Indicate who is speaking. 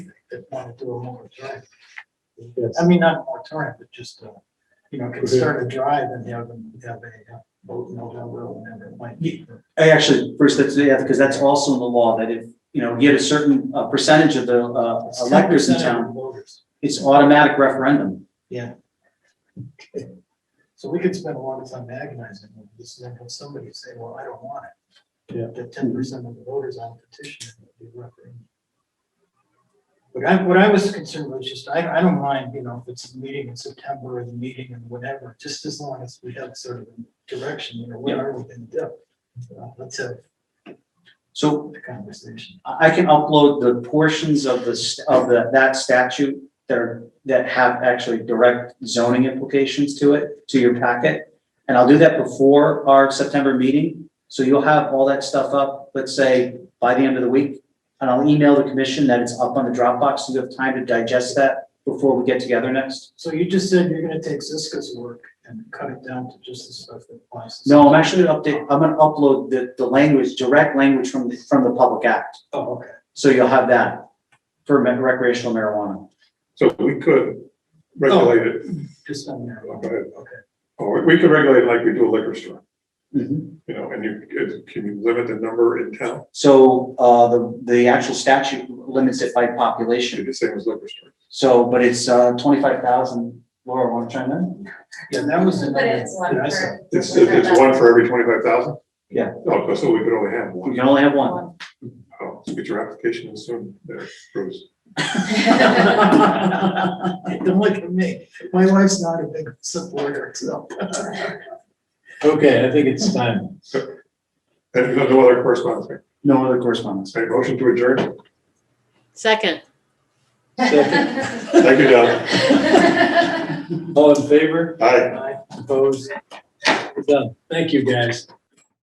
Speaker 1: that want to do a moratorium.
Speaker 2: Yes.
Speaker 1: I mean, not a moratorium, but just, uh, you know, can start a drive and have them have a uh, vote in November or whenever it might be.
Speaker 3: I actually, first, that's, yeah, because that's also in the law, that if, you know, you get a certain uh, percentage of the uh,
Speaker 1: It's
Speaker 3: electors in
Speaker 1: 10% of
Speaker 3: town,
Speaker 1: the Voters.
Speaker 3: it's automatic referendum.
Speaker 1: So we could spend a lot of time agonizing over this, and then have somebody say, well, I don't want it.
Speaker 2: Yeah.
Speaker 1: The ten percent of the voters on petition it would be referendum. But I, what I was concerned was just, I, I don't mind, you know, if it's a meeting in September or the meeting and whatever, just as long as we have sort of a direction, you know, what
Speaker 3: Yeah.
Speaker 1: are we gonna do? Uh, Let's have
Speaker 3: So
Speaker 1: the conversation.
Speaker 3: I I can upload the portions of the, st- of the, that statute that are, that have actually direct zoning implications to it, to your packet. And I'll do that before our September meeting, so you'll have all that stuff up, let's say, by the end of the week. And I'll email the commission that it's up on the Dropbox, so you have time to digest that before we get together next.
Speaker 1: So you just said you're gonna take Ziska's work and cut it down to just the stuff that applies. to-
Speaker 3: No, I'm actually gonna update, I'm gonna upload the, the language, direct language from, the from the public act,
Speaker 1: Oh, okay.
Speaker 3: so you'll have that for me- recreational marijuana.
Speaker 4: So we could regulate it,
Speaker 1: Just on there.
Speaker 4: Go ahead.
Speaker 1: Okay.
Speaker 4: or we could regulate it like we do a liquor store,
Speaker 3: Mhm.
Speaker 4: you know, and you, it- can you limit the number in town?
Speaker 3: So, uh, the, the actual statute limits it by
Speaker 4: Should
Speaker 3: population.
Speaker 4: be the same as liquor store.
Speaker 3: So, but it's, uh, twenty-five thousand. Laura, want to chime in?
Speaker 1: Yeah, that was
Speaker 5: But
Speaker 1: another.
Speaker 5: it's one
Speaker 1: that I saw.
Speaker 5: per.
Speaker 4: It's, it's one for every twenty-five thousand?
Speaker 3: Yeah.
Speaker 4: Oh, so we could only have
Speaker 3: We
Speaker 4: one.
Speaker 3: can only have one.
Speaker 4: Oh, so get your application in soon there, Bruce.
Speaker 1: Don't look at me. My wife's not a big supporter, so.
Speaker 2: Okay, I think it's time.
Speaker 4: And no- no other correspondence, right?
Speaker 3: No other correspondence.
Speaker 4: Right, motion to adjourn.
Speaker 6: Second.
Speaker 4: Thank you, John.
Speaker 2: All in favor?
Speaker 4: Aye.
Speaker 2: Opposed? We're Done. Thank you, guys.